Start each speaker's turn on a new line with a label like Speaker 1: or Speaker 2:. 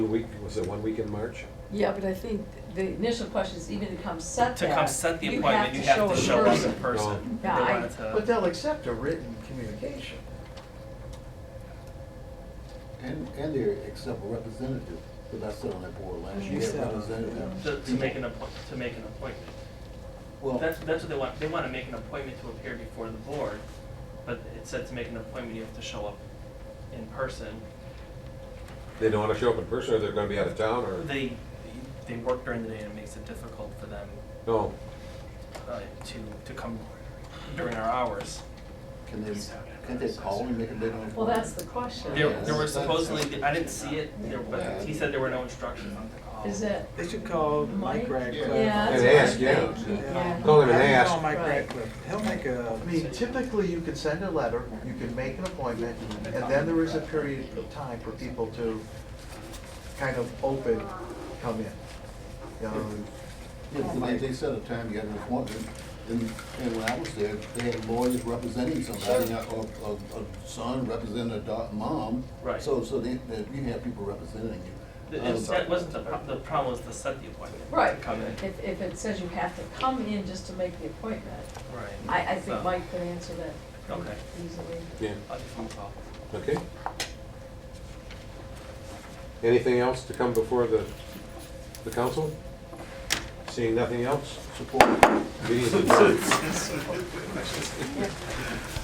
Speaker 1: week, was it one week in March?
Speaker 2: Yeah, but I think the initial question is even to come set
Speaker 3: To
Speaker 2: that.
Speaker 3: come set the appointment, you have to show
Speaker 2: a
Speaker 3: up in
Speaker 2: person.
Speaker 3: person.
Speaker 2: Yeah,
Speaker 3: They
Speaker 2: I-
Speaker 3: wanted to-
Speaker 4: But they'll accept a written communication.
Speaker 5: And, and they accept a representative, because I sat on that board last
Speaker 4: You
Speaker 5: year,
Speaker 4: sat on it.
Speaker 5: representative.
Speaker 6: To, to make an appoint, to make an appointment.
Speaker 5: Well,
Speaker 6: That's, that's what they want, they wanna make an appointment to appear before the board, but it said to make an appointment, you have to show up in person.
Speaker 1: They don't want to show up in person, or they're going to be out of town, or?
Speaker 6: They, they work during the day and it makes it difficult for them,
Speaker 1: No,
Speaker 6: uh, to, to come during our hours.
Speaker 5: can they, can they call and make a bid on it?
Speaker 2: Well, that's the question.
Speaker 6: There, there were supposedly, I didn't see it, there, but he said there were no instructions on the call.
Speaker 2: Is it,
Speaker 4: They should call Mike
Speaker 2: Mike?
Speaker 4: Radcliffe.
Speaker 2: yeah, that's
Speaker 1: And
Speaker 2: what I
Speaker 1: ask, yeah.
Speaker 2: think. yeah.
Speaker 1: Call him and
Speaker 4: Have him
Speaker 1: ask.
Speaker 4: call Mike
Speaker 2: Right.
Speaker 4: Radcliffe. He'll make a, I mean, typically you can send a letter, you can make an appointment, and then there is a period of time for people to kind of open, come in. You know,
Speaker 5: Yeah, but they, they set a time, you had an appointment, and, and when I was there, they had lawyers representing somebody, or, or, or son representing a da- mom.
Speaker 6: Right.
Speaker 5: So, so they, that you have people representing you.
Speaker 6: The- it's-
Speaker 5: Um,
Speaker 6: That wasn't the, pro- the problem was to set the appointment. to
Speaker 2: Right,
Speaker 6: Come in.
Speaker 2: if, if it says you have to come in just to make the appointment,
Speaker 6: Right.
Speaker 2: I, I
Speaker 6: So,
Speaker 2: think Mike could answer that pretty
Speaker 6: Okay.
Speaker 2: easily.
Speaker 1: yeah,
Speaker 6: I'll just phone call.
Speaker 1: okay. Anything else to come before the, the council? Seeing nothing else?
Speaker 5: Support.
Speaker 1: Meeting is adjourned.